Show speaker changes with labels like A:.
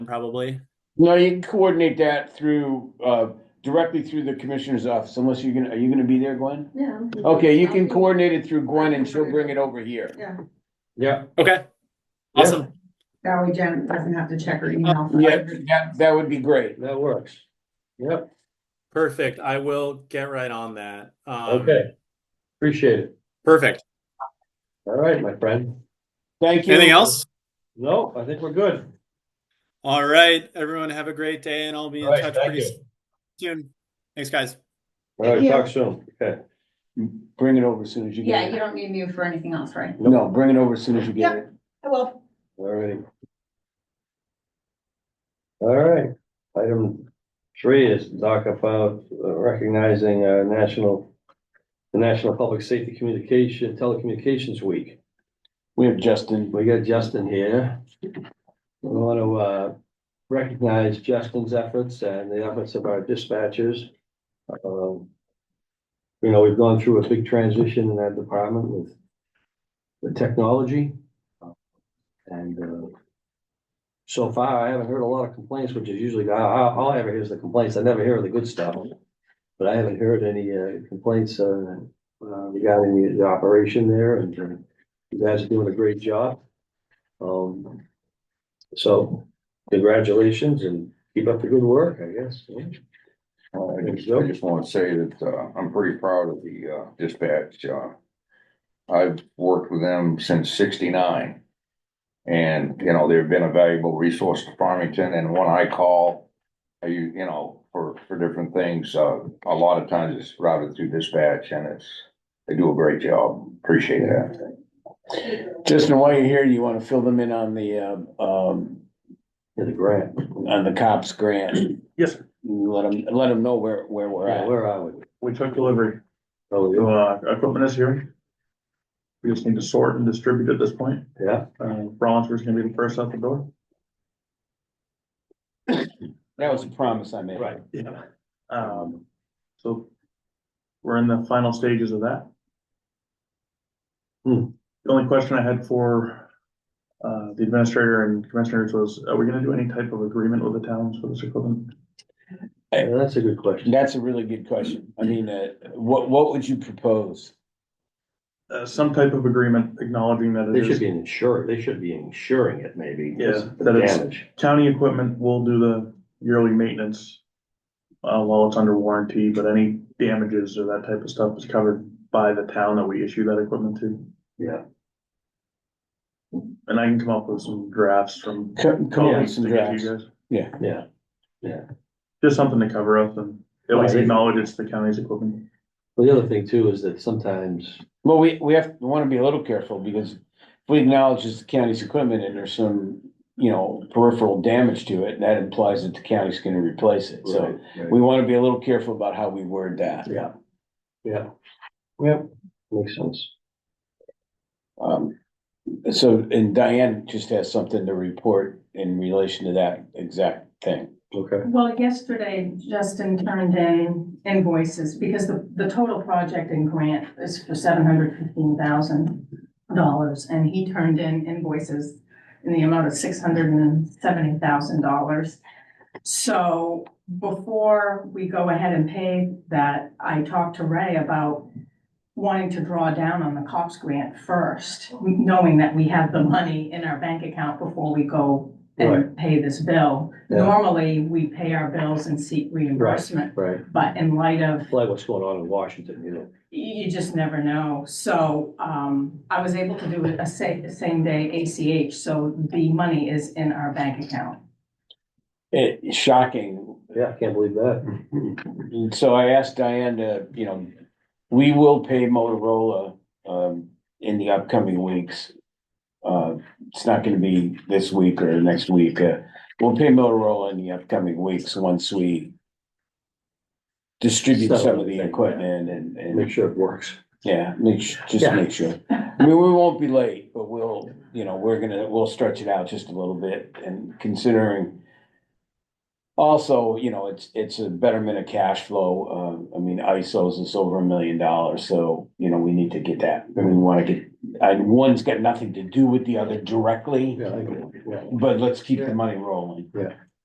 A: probably.
B: No, you can coordinate that through, uh, directly through the commissioner's office, unless you're gonna, are you gonna be there, Gwen?
C: Yeah.
B: Okay, you can coordinate it through Gwen and she'll bring it over here.
C: Yeah,
D: Yeah,
A: Okay.
D: Yeah.
A: Awesome.
C: that way Janet doesn't have to check her email.
B: Uh, Yeah, that, that would be great.
D: that works. Yep,
A: Perfect. I will get right on that. Um,
D: okay. Appreciate it.
A: Perfect.
D: All right, my friend.
B: Thank you.
A: Anything else?
D: No, I think we're good.
A: All right, everyone have a great day and I'll be in
D: All right,
A: touch
D: thank
A: pretty
D: you.
A: soon. Thanks, guys.
D: All right,
C: Yeah.
D: talk soon. Okay.
B: Bring it over as soon as you
C: Yeah,
B: get
C: you
B: it.
C: don't need me for anything else, right?
B: No, bring it over as soon as you get it.
C: I will.
D: All right. All right, item three is to talk about uh, recognizing uh national, the National Public Safety Communication Telecommunications Week.
B: We have Justin.
D: We got Justin here. We want to uh, recognize Justin's efforts and the efforts of our dispatchers. Um, You know, we've gone through a big transition in that department with the technology. And uh, so far, I haven't heard a lot of complaints, which is usually, I- I- all I ever hear is the complaints. I never hear the good stuff. But I haven't heard any uh, complaints uh, uh, regarding the- the operation there and uh, you guys are doing a great job. Um, so congratulations and keep up the good work, I guess.
E: Well, I just, I just wanna say that, uh, I'm pretty proud of the, uh, dispatch, uh. I've worked with them since sixty-nine. And, you know, they've been a valuable resource to Farmington, and when I call, I, u- you know, for, for different things, uh, a lot of times it's routed through dispatch, and it's, they do a great job, appreciate that.
B: Justin, while you're here, you wanna fill them in on the, um, um,
D: To the grant.
B: on the cops grant?
F: Yes, sir.
B: Let them, let them know where, where we're
D: Where
B: at.
D: where are we?
F: we took delivery,
D: Oh,
F: so,
D: yeah.
F: uh, equipment is here. We just need to sort and distribute at this point,
D: yeah,
F: uh, Rollinsford's gonna be the first out the door.
B: That was a promise I made.
D: right.
F: Yeah. Um, so we're in the final stages of that.
D: Hmm.
F: The only question I had for uh, the administrator and commissioners was, are we gonna do any type of agreement with the towns for this equipment?
D: Yeah, That's a good question.
B: That's a really good question. I mean, uh, what, what would you propose?
F: Uh, some type of agreement acknowledging that
D: They
F: it
D: should
F: is
D: be insured, they should be insuring it maybe.
F: Yeah,
D: the
F: that is-
D: Damage.
F: county equipment will do the yearly maintenance. Uh, while it's under warranty, but any damages or that type of stuff is covered by the town that we issue that equipment to.
D: Yeah,
F: And I can come up with some drafts from.
B: Come, come up with some
F: to give you
B: drafts.
F: guys.
D: yeah.
F: Just something to cover up and at least
D: Right.
F: acknowledge it's the county's equipment.
D: Well, the other thing too is that sometimes,
B: Well, we, we have, we wanna be a little careful, because if we acknowledge it's the county's equipment and there's some, you know, peripheral damage to it, that implies that the county's gonna replace it, so.
D: so, we-
B: We wanna be a little careful about how we word that.
D: yeah, yeah. Yep, makes sense.
B: Um, so, and Diane just has something to report in relation to that exact thing.
D: Okay,
C: Well, yesterday Justin turned in invoices because the, the total project and grant is for seven hundred fifteen thousand dollars. And he turned in invoices in the amount of six hundred and seventy thousand dollars. So before we go ahead and pay that, I talked to Ray about wanting to draw down on the COPS grant first, knowing that we have the money in our bank account before we go and
D: Right.
C: pay this bill.
D: Yeah.
C: Normally, we pay our bills and seek reimbursement,
D: right.
C: but in light of,
D: Like what's going on in Washington, you know.
C: you, you just never know. So, um, I was able to do a sa- same-day ACH, so the money is in our bank account.
B: It, shocking,
D: Yeah, I can't believe that.
B: And so I asked Diane to, you know, we will pay Motorola um in the upcoming weeks. Uh, it's not gonna be this week or next week. Uh, we'll pay Motorola in the upcoming weeks once we distribute some of the equipment and
D: Make
B: and,
D: sure it works.
B: yeah, make, su- just
D: Yeah.
B: make sure. I mean, we won't be late, but we'll, you know, we're gonna, we'll stretch it out just a little bit and considering also, you know, it's, it's a betterment of cash flow. Uh, I mean, ISOs is over a million dollars, so, you know, we need to get that. I mean, we wanna get and one's got nothing to do with the other directly,
D: Yeah, I think- yeah.
B: but let's keep the money rolling.
D: Yeah.